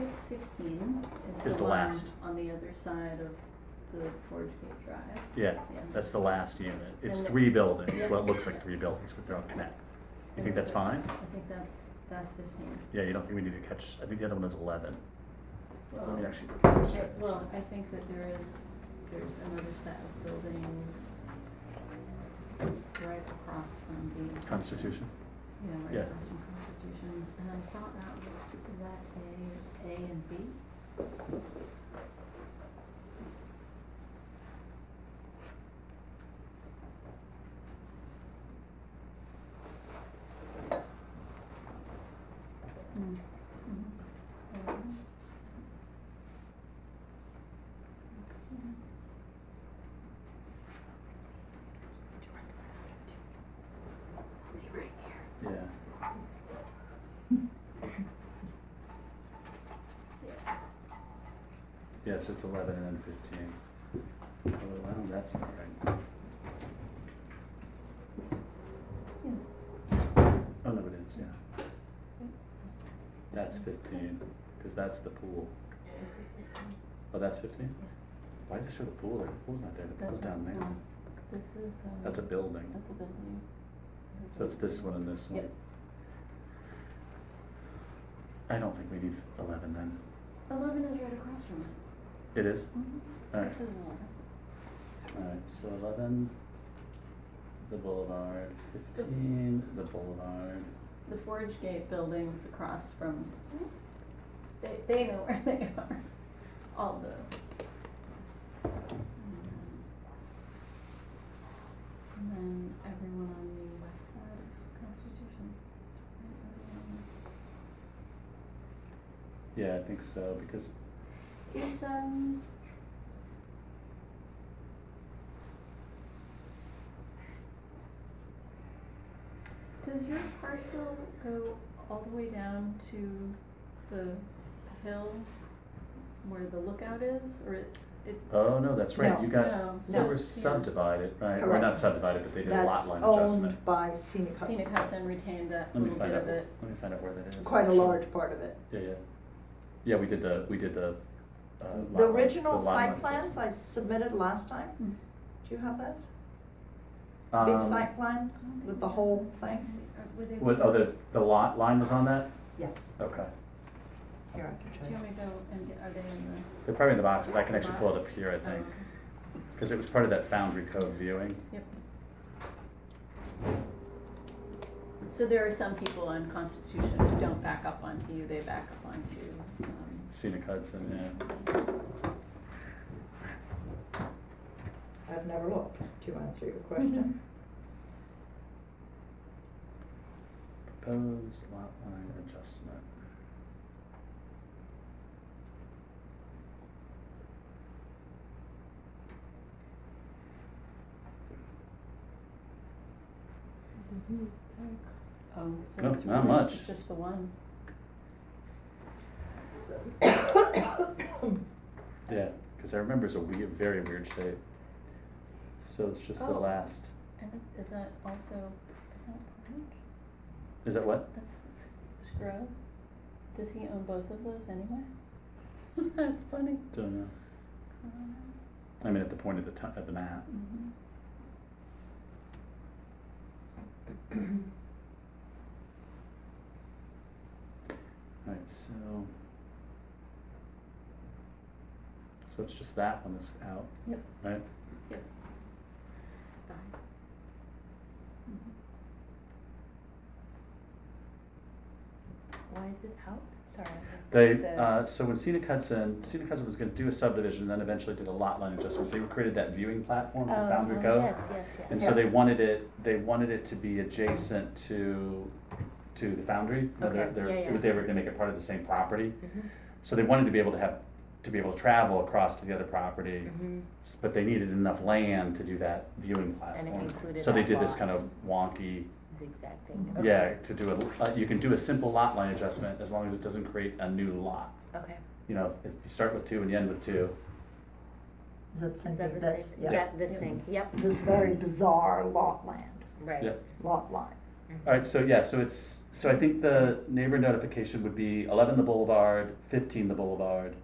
is the line last. On the other side of the Forge Gate Drive, Yeah, yeah. that's the last unit. It's And the- three buildings, Yeah. well, it looks like three buildings, but they're all connected. You think that's fine? I think that's, that's fifteen. Yeah, you don't think we need to catch, I think the other one is eleven. Let me Well, actually just I- check this. Well, I think that there is, there's another set of buildings right across from the. Constitution? Yeah, right Yeah. across from Constitution. And I thought that was, is that A, A and B? Mm, mhm. Yeah. Yeah. Yeah, so it's eleven and then fifteen. Oh, wow, that's not right. Yeah. Oh, no, it is, yeah. That's fifteen, because that's the pool. Is it fifteen? Oh, that's fifteen? Yeah. Why does it show the pool there? The pool's not there, the pool's That's down not- there. no. This is, um. That's a building, That's a building. so it's this one and this one. Yep. I don't think we need eleven then. Eleven is right across from it. It is? All right, This is eleven. Alright, so eleven, the boulevard, fifteen, the boulevard. The Forge Gate building's across from, they, they know where they are, all of those. And then everyone on the west side of Constitution. Right, everyone. Yeah, I think so, because, Is, um. Does your parcel go all the way down to the hill where the lookout is, or it, it? oh, no, that's right, No. you got, No, so we're yeah. subdivided, right, or not Correct. subdivided, but they did a lot That's line adjustment. owned by Scenic Hudson. Scenic Hudson retained that Let me little bit find out, of let it. me find out where that is. Quite a actually. large part of it. Yeah, yeah, yeah, we did the, we did the, uh, lot line- The original lot line site plans adjustment. I submitted last time, Mm. do you have those? Big Um, site plan with the whole thing? Are- Were they? What, oh, the, the lot line was on that? Yes. Okay, Here, I can Do show you you. want me to go and get, are they in the? they're probably in the box, but I can actually pull it up here, I oh, think, okay. because it was part of that Foundry Cove viewing. Yep. So there are some people on Constitution who don't back up onto you, they back up onto, um, Scenic Hudson, yeah. I've never looked, to answer your question. Proposed lot line adjustment. oh, so No, it's not really- much. it's just the one. Yeah, because I remember it's a weird, very weird shape. So it's just the Oh. last, And is that also, is that Portage? is that what? That's S- Scrub? Does he own both of those anyway? That's funny. Don't know. I mean, at the point of the ti- of the map. Mhm. Right, so. So it's just that one that's out. Yep. Right? Bye. Mhm. Why is it out? Sorry. I missed They, the- uh, so when Scenic Hudson, Scenic Hudson was gonna do a subdivision, then eventually did a lot line adjustment. They created that viewing platform for Oh, Foundry oh, Cove. Yes, yes, yes. And so they wanted it, they wanted it to be adjacent to, to the foundry. No, they're- Okay, they're- yeah, yeah. They were gonna make it part of the same property. Mhm. So they wanted to be able to have, to be able to travel across to the other property, Mhm. s- but they needed enough land to do that viewing And it platform. included So they that did this lot. kind of wonky, Zigzag thing. Okay. yeah, to do a, uh, you can do a simple lot line adjustment as long as it doesn't create a new lot. Okay. You know, if you start with two and you end with two, Mm-hmm. Is that Is that something the that's, same? yeah, That, this thing, yep, this very bizarre lot land, right. Yep. lot line. All right, so yeah, so it's, so I think the neighbor notification would be eleven the Boulevard, fifteen the Boulevard,